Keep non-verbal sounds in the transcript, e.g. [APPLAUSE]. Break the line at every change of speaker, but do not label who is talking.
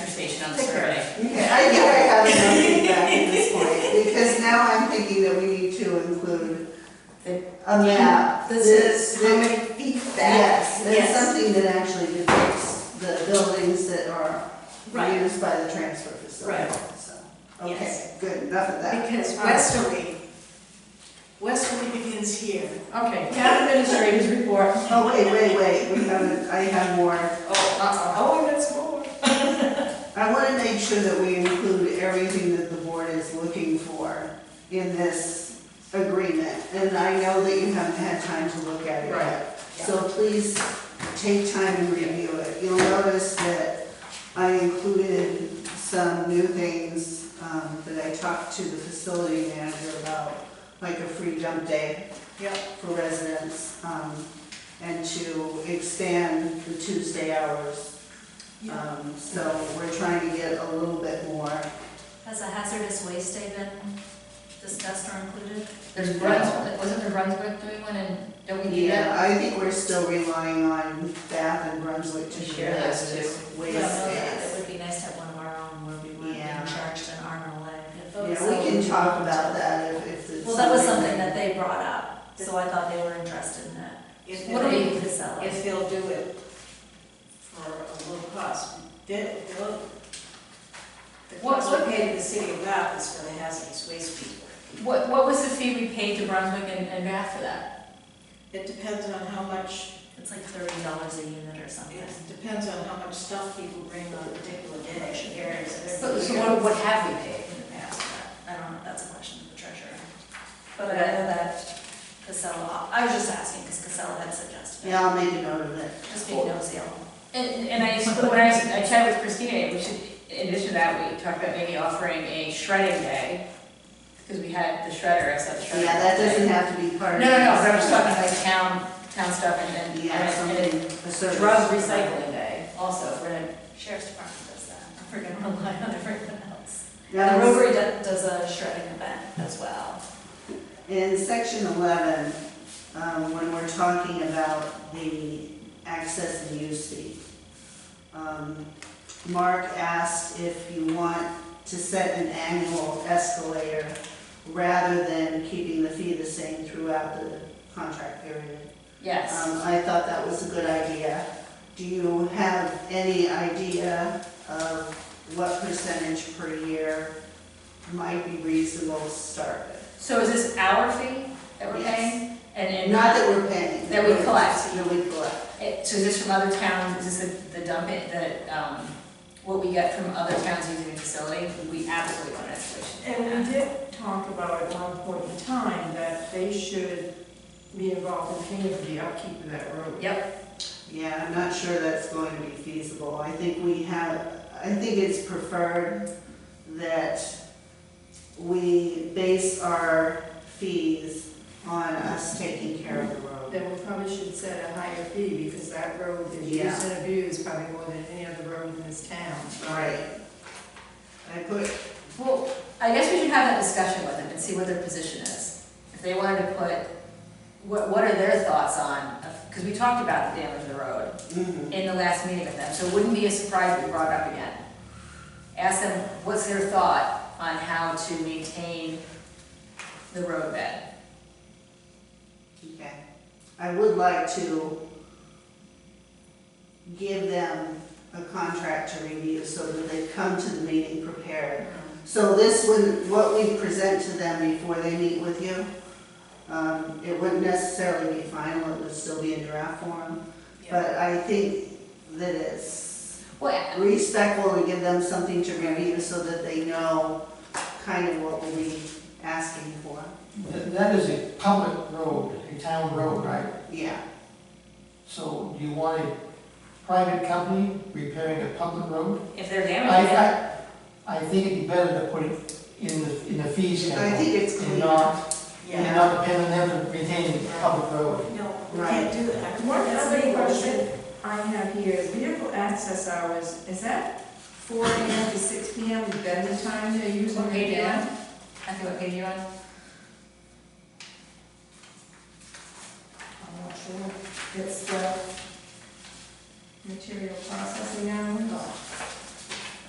on the survey.
Okay, I think I have enough feedback at this point, because now I'm thinking that we need to include
The-
a map.
This
that-
is how
that-
many feet back.
Yes,
Yes.
that's something that actually depicts the buildings that are
Right.
used by the transfer facility,
Right.
so.
Yes.
Okay, good, enough of that.
Because westerly, westerly begins here.
Okay, town administrators report.
Oh, wait, wait, wait, we haven't, I have more.
Oh, uh-oh.
Oh, and that's more.
I want to make sure that we include everything that the board is looking for in this agreement. And I know that you haven't had time to look at it yet. So please take time and review it. You'll notice that I included some new things um, that I talked to the facility manager about, like a free dump day
Yep.
for residents, um, and to expand the Tuesday hours.
Yeah.
Um, so we're trying to get a little bit more.
Has a hazardous waste day been discussed or included?
There's Brunswick, wasn't there Brunswick doing one and don't we do
Yeah,
that?
I think we're still relying on Bath and Brunswick to
To
share
share
those
those
two
I
ways.
don't know,
Yeah,
It would be nice to have one of our own where we weren't
Yeah.
being charged an arm and a leg.
we can talk about that if, if it's.
Oh, Well, that was something that they brought up, so I thought they were interested in that.
If
What do
What do
they,
we-
we sell it?
if they'll do it for a low cost, they, they'll, the
What-
cost
what-
we pay to the city of Bath is for the hazardous waste people.
What, what was the fee we paid to Brunswick and, and Bath for that?
It depends on how much,
It's like thirty dollars a unit or something.
it depends on how much stuff people bring on a particular day, areas of
So,
their
so
year.
what, what have we paid in the past?
I don't know if that's a question of the treasurer. But I know that Casella, I was just asking because Casella had suggested it.
Yeah, I'll make a note of it.
Just being nosy.
And, and I, when I, I chatted with Christina, we should, in addition to that, we talked about maybe offering a shredding day, because we had the shredder, I said the shredder.
Yeah, that
day.
doesn't have to be part
No, no,
of.
no, but
this.
I'm just talking like town, town stuff and then,
Yeah,
and
something,
and
a
a
service.
drug recycling day also, for the
Sheriff's Department does that. We're gonna rely on everyone [LAUGHS] else.
That
The
was-
Rotary do- does a shredding event as well.
In section eleven, um, when we're talking about the access and use fee, um, Mark asked if you want to set an annual escalator rather than keeping the fee the same throughout the contract period.
yes.
Um, I thought that was a good idea. Do you have any idea of what percentage per year might be reasonable to start with?
So is this our fee that we're
Yes.
paying? And, and uh,
Not that we're paying.
That we collect.
That we collect.
it- So is this from other towns, is this the, the dump it, the, um, what we get from other towns using the facility? We absolutely want an escalation.
And we did talk about at one point in time that they should be involved in paying for the upkeep of that road.
Yep,
Yeah, I'm not sure that's going to be feasible. I think we have, I think it's preferred that we base our fees on us taking care of the road.
Then we probably should set a higher fee because that road is
Yeah.
used and abused probably more than any other road in this town.
Right. I put,
well, I guess we should have that discussion with them and see what their position is. If they wanted to put, what, what are their thoughts on, because we talked about the damage to the road
mhm.
in the last meeting with them, so it wouldn't be a surprise if we brought it up again. Ask them, what's their thought on how to maintain the roadbed?
okay. I would like to give them a contract to review so that they come to the meeting prepared So this would, what we present to them before they meet with you, um, it wouldn't necessarily be final, it would still be in draft form. But I think that it's
Well,
respectful to give them something to review so that they know kind of what we'll be asking for.
That that is a public road, a town road, right?
Yeah,
So do you want a private company repairing a public road?
if they're
I,
damaged,
I, I think it'd be better to put it in the, in the fee schedule.
I think it's
And
clean.
not,
Yeah.
and not depend on them to maintain the public road.
No, we
Right.
can't do that.
One
That's
other
legal.
question I have here is vehicle access hours, is that four AM to six PM, is that the time they're using
What
the
page are you on?
van?
I think what page you on?
I'm not sure, it's the material processing hours.